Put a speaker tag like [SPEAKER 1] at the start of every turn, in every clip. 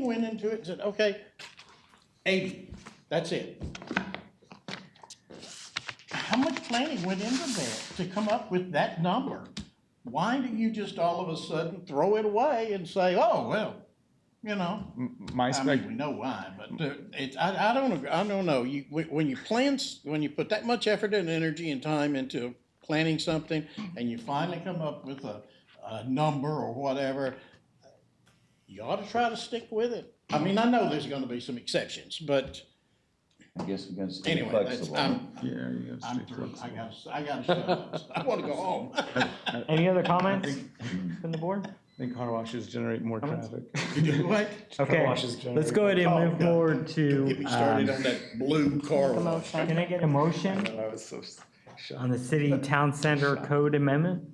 [SPEAKER 1] went into it and said, okay, eighty, that's it. How much planning went into that to come up with that number? Why do you just all of a sudden throw it away and say, oh, well, you know?
[SPEAKER 2] My
[SPEAKER 1] I
[SPEAKER 2] spec,
[SPEAKER 1] mean, we know why, but uh, it, I, I don't, agree- I don't know. You, when when you plan, s- when you put that much effort and energy and time into planning something and you finally come up with a, a number or whatever, you ought to try to stick with it. I mean, I know there's gonna be some exceptions, but
[SPEAKER 3] I guess we can stay
[SPEAKER 1] anyway, that's,
[SPEAKER 3] flexible.
[SPEAKER 1] I'm,
[SPEAKER 2] yeah, you gotta
[SPEAKER 1] I'm
[SPEAKER 2] stay
[SPEAKER 1] through. I
[SPEAKER 2] flexible.
[SPEAKER 1] gotta, I gotta shut up. I wanna go home.
[SPEAKER 4] Any other comments from the board?
[SPEAKER 2] I think car washes generate more traffic.
[SPEAKER 1] What?
[SPEAKER 4] Okay, let's go ahead and
[SPEAKER 1] Oh,
[SPEAKER 4] move
[SPEAKER 1] God.
[SPEAKER 4] forward to,
[SPEAKER 1] Get me started
[SPEAKER 4] um,
[SPEAKER 1] on that blue car wash.
[SPEAKER 4] can I get a motion
[SPEAKER 2] I was so shocked.
[SPEAKER 4] on the city town center code amendment?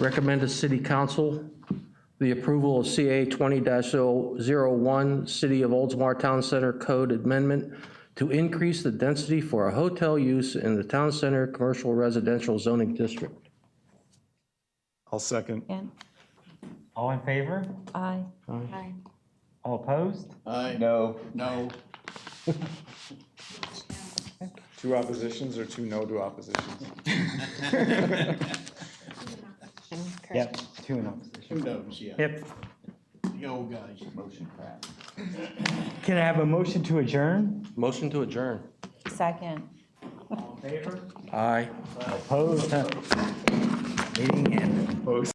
[SPEAKER 5] Recommend to City Council the approval of CA 20-01, City of Oldsmar Town Center Code Amendment to increase the density for a hotel use in the Town Center Commercial Residential Zoning District.
[SPEAKER 2] I'll second.
[SPEAKER 6] Again,
[SPEAKER 4] All in favor?
[SPEAKER 6] aye.
[SPEAKER 4] All opposed?
[SPEAKER 1] I,
[SPEAKER 3] No,
[SPEAKER 1] no,
[SPEAKER 2] Two oppositions or two no to oppositions?
[SPEAKER 4] Yep, two in opposition.
[SPEAKER 1] who knows, yeah,
[SPEAKER 4] Yep,
[SPEAKER 1] the old guys.
[SPEAKER 3] motion passed.
[SPEAKER 4] can I have a motion to adjourn?
[SPEAKER 5] Motion to adjourn.
[SPEAKER 6] Second.
[SPEAKER 4] All in favor?
[SPEAKER 5] Aye.
[SPEAKER 4] Opposed? Meeting ended.